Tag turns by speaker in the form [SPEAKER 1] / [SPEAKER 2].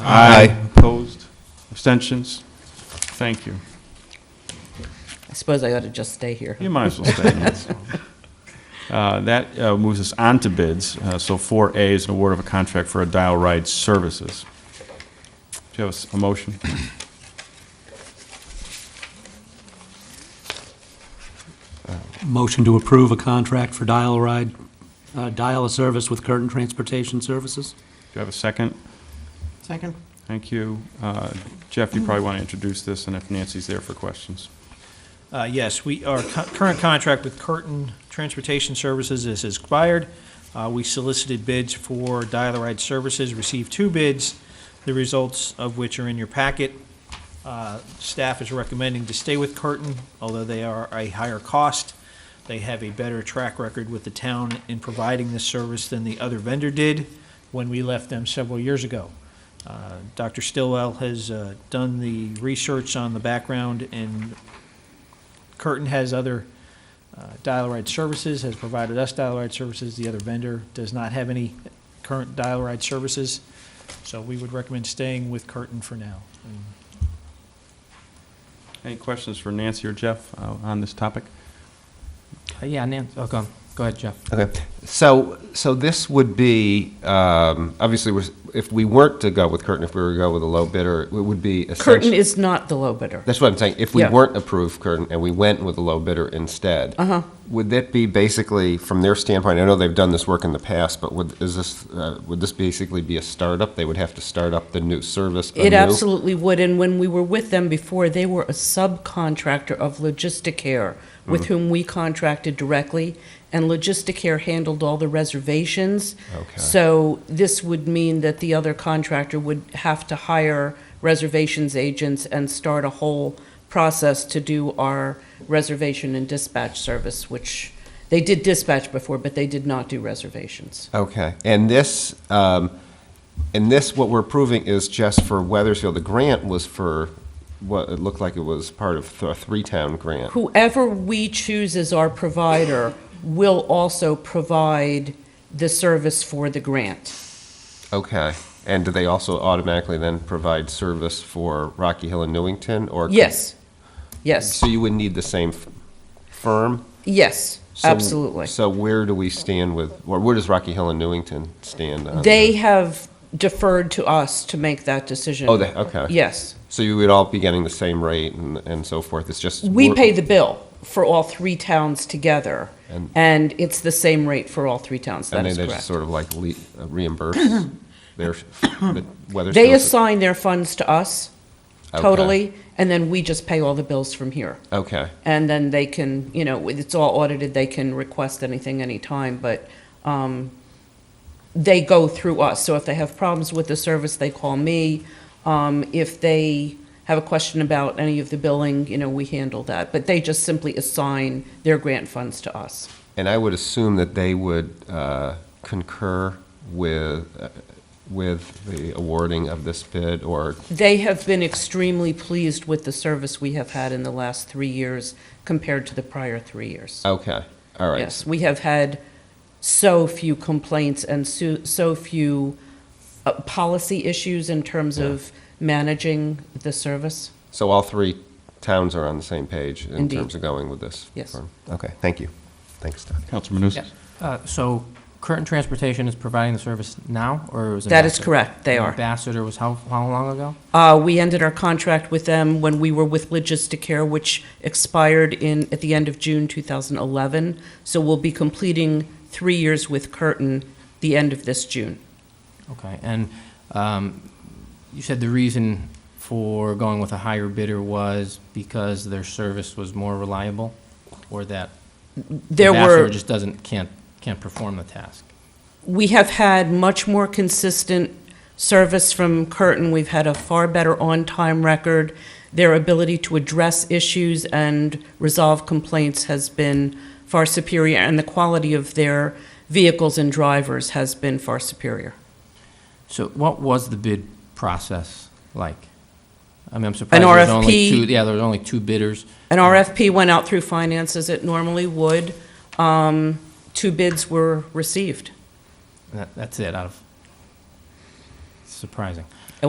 [SPEAKER 1] Aye. Opposed? Abstentions? Thank you.
[SPEAKER 2] I suppose I ought to just stay here.
[SPEAKER 1] You might as well stay. Uh, That uh, moves us on to bids. Uh, So 4A is an award of a contract for a dial ride services. Do you have a s- a motion?
[SPEAKER 3] Motion to approve a contract for dial a ride, uh, dial a service with Curtin Transportation Services?
[SPEAKER 1] Do you have a second?
[SPEAKER 2] Second.
[SPEAKER 1] Thank you. Uh, Jeff, you probably want to introduce this, and if Nancy's there for questions.
[SPEAKER 4] Uh, Yes, we, our cu- current contract with Curtin Transportation Services is expired. Uh, We solicited bids for dial-a-ride services, received two bids, the results of which are in your packet. Uh, Staff is recommending to stay with Curtin, although they are a higher cost. They have a better track record with the town in providing this service than the other vendor did when we left them several years ago. Uh, Dr. Stillwell has uh, done the research on the background and Curtin has other uh, dial-a-ride services, has provided us dial-a-ride services. The other vendor does not have any current dial-a-ride services. So we would recommend staying with Curtin for now. And
[SPEAKER 1] Any questions for Nancy or Jeff uh, on this topic?
[SPEAKER 2] Uh,
[SPEAKER 5] Yeah, Nan, oh, go, on. go ahead, Jeff.
[SPEAKER 6] Okay, so, so this would be, um, obviously, we're- if we weren't to go with Curtin, if we were to go with a low bidder, it would be
[SPEAKER 2] Curtin
[SPEAKER 6] essentially.
[SPEAKER 2] is not the low bidder.
[SPEAKER 6] That's what I'm saying, if we
[SPEAKER 2] Yeah.
[SPEAKER 6] weren't approved Curtin and we went with a low bidder instead. Uh-huh. Would that be basically, from their standpoint, I know they've done this work in the past, but would, is this, uh, would this basically be a startup? They would have to start up the new service anew?
[SPEAKER 2] It absolutely would, and when we were with them before, they were a subcontractor of
[SPEAKER 6] Mm.
[SPEAKER 2] Logisticare, with whom we contracted directly, and Logisticare handled all the reservations.
[SPEAKER 6] Okay.
[SPEAKER 2] So this would mean that the other contractor would have to hire reservations agents and start a whole process to do our reservation and dispatch service, which they did dispatch before, but they did not do reservations.
[SPEAKER 6] Okay, and this, um, and this, what we're approving is just for Weathersfield. The grant was for, what, it looked like it was part of a three-town grant.
[SPEAKER 2] whoever we choose as our provider will also provide the service for the grant.
[SPEAKER 6] Okay, and do they also automatically then provide service for Rocky Hill and Newington, or? could-
[SPEAKER 2] Yes, yes,
[SPEAKER 6] So you would need the same f- firm?
[SPEAKER 2] yes,
[SPEAKER 6] So-
[SPEAKER 2] absolutely.
[SPEAKER 6] So where do we stand with, or where does Rocky Hill and Newington stand on?
[SPEAKER 2] They
[SPEAKER 6] that?
[SPEAKER 2] have deferred to us to make that decision.
[SPEAKER 6] Oh, they, okay.
[SPEAKER 2] Yes.
[SPEAKER 6] So you would all be getting the same rate and, and so forth, it's just.
[SPEAKER 2] We
[SPEAKER 6] we're-
[SPEAKER 2] pay the bill for all three towns together,
[SPEAKER 6] And-
[SPEAKER 2] and it's the same rate for all three towns, that
[SPEAKER 6] And then
[SPEAKER 2] is
[SPEAKER 6] they just
[SPEAKER 2] correct.
[SPEAKER 6] sort of like le- uh, reimburse their, the Weathersfield.
[SPEAKER 2] They assign their funds to us totally, and then we just pay all the bills from here.
[SPEAKER 6] Okay,
[SPEAKER 2] And then they can, you know, it's all audited, they can request anything anytime, but um, they go through us. So if they have problems with the service, they call me. Um, If they have a question about any of the billing, you know, we handle that. But they just simply assign their grant funds to us.
[SPEAKER 6] and I would assume that they would uh, concur with, uh, with the awarding of this bid, or,
[SPEAKER 2] They have been extremely pleased with the service we have had in the last three years compared to the prior three years.
[SPEAKER 6] okay, all right.
[SPEAKER 2] Yes, we have had so few complaints and so, so few uh, policy issues in terms of managing the service.
[SPEAKER 6] So all three towns are on the same page in
[SPEAKER 2] Indeed.
[SPEAKER 6] terms of going with this?
[SPEAKER 2] Yes.
[SPEAKER 6] firm? Okay, thank you. Thanks, Doug.
[SPEAKER 1] Councilor Manusis?
[SPEAKER 5] Uh, So Curtin Transportation is providing the service now, or it was
[SPEAKER 2] That is
[SPEAKER 5] Ambassador?
[SPEAKER 2] correct, they are.
[SPEAKER 5] Ambassador was how, how long ago?
[SPEAKER 2] Uh, we ended our contract with them when we were with Logisticare, which expired in, at the end of June 2011. So we'll be completing three years with Curtin the end of this June.
[SPEAKER 5] Okay, and um, you said the reason for going with a higher bidder was because their service was more reliable? Or that
[SPEAKER 2] There were.
[SPEAKER 5] Ambassador just doesn't, can't, can't perform the task?
[SPEAKER 2] we have had much more consistent service from Curtin. We've had a far better on-time record. Their ability to address issues and resolve complaints has been far superior, and the quality of their vehicles and drivers has been far superior.
[SPEAKER 5] So what was the bid process like? I mean, I'm
[SPEAKER 2] An
[SPEAKER 5] surprised there was only
[SPEAKER 2] RFP.
[SPEAKER 5] two, yeah, there was only two bidders.
[SPEAKER 2] An RFP went out through finance as it normally would. Um, Two bids were received.
[SPEAKER 5] That, that's it, out of, surprising.